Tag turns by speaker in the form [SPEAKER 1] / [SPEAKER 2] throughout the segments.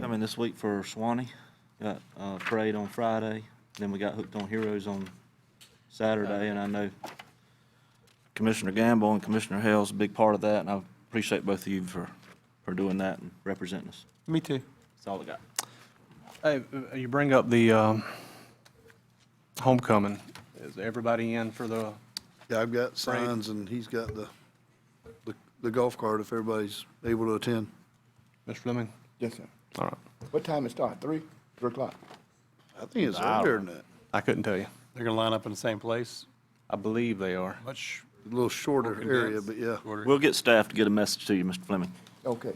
[SPEAKER 1] coming this week for Swanee. Got uh, parade on Friday, then we got hooked on Heroes on Saturday, and I know Commissioner Gamble and Commissioner Hale's a big part of that, and I appreciate both of you for, for doing that and representing us.
[SPEAKER 2] Me too.
[SPEAKER 1] That's all I got.
[SPEAKER 2] Hey, uh, you bring up the um, homecoming. Is everybody in for the,
[SPEAKER 3] Yeah, I've got signs and he's got the, the- the golf cart if everybody's able to attend.
[SPEAKER 2] Mr. Fleming?
[SPEAKER 4] Yes, sir.
[SPEAKER 2] All right.
[SPEAKER 4] What time it start? Three, three o'clock?
[SPEAKER 3] I think it's earlier than that,
[SPEAKER 2] I couldn't tell you.
[SPEAKER 5] They're gonna line up in the same place,
[SPEAKER 2] I believe they are.
[SPEAKER 5] much.
[SPEAKER 3] a little shorter area,
[SPEAKER 5] condensed,
[SPEAKER 3] but yeah.
[SPEAKER 5] shorter.
[SPEAKER 1] We'll get staff to get a message to you, Mr. Fleming.
[SPEAKER 4] Okay.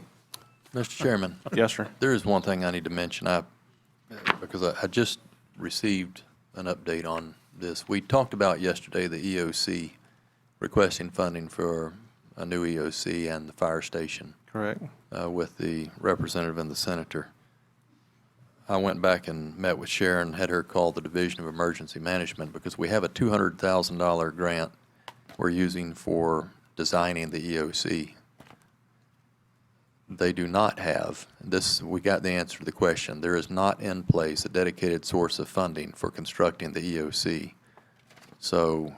[SPEAKER 6] Mr. Chairman,
[SPEAKER 2] Yes, sir.
[SPEAKER 6] there is one thing I need to mention, I, because I, I just received an update on this. We talked about yesterday the EOC requesting funding for a new EOC and the fire station
[SPEAKER 2] Correct.
[SPEAKER 6] uh, with the representative and the senator. I went back and met with Sharon, had her call the Division of Emergency Management because we have a $200,000 grant we're using for designing the EOC. They do not have, this, we got the answer to the question, there is not in place a dedicated source of funding for constructing the EOC. So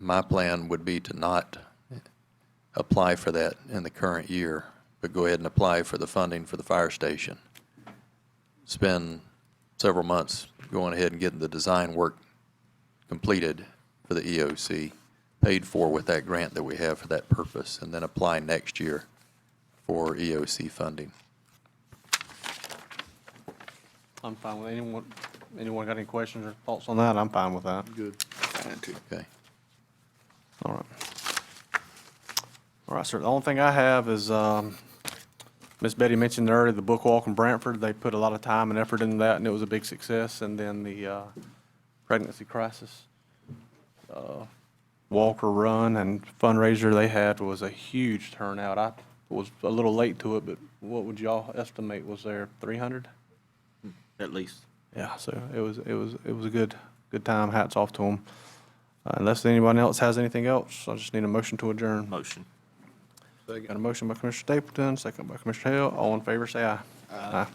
[SPEAKER 6] my plan would be to not apply for that in the current year, but go ahead and apply for the funding for the fire station. Spend several months going ahead and getting the design work completed for the EOC, paid for with that grant that we have for that purpose, and then apply next year for EOC funding.
[SPEAKER 2] I'm fine with anyone. Anyone got any questions or thoughts on that? I'm fine with that.
[SPEAKER 3] Good.
[SPEAKER 6] Okay?
[SPEAKER 2] All right. All right, sir. The only thing I have is, um, Miss Betty mentioned earlier, the book walk in Brantford, they put a lot of time and effort into that, and it was a big success. And then the, uh, pregnancy crisis, uh, walk or run and fundraiser they had was a huge turnout. I was a little late to it, but what would y'all estimate was there, three hundred?
[SPEAKER 1] At least.
[SPEAKER 2] Yeah, so it was, it was, it was a good, good time. Hats off to them. Unless anyone else has anything else, I just need a motion to adjourn.
[SPEAKER 1] Motion.
[SPEAKER 2] Got a motion by Commissioner Stapleton, second by Commissioner Hale. All in favor, say aye. Aye.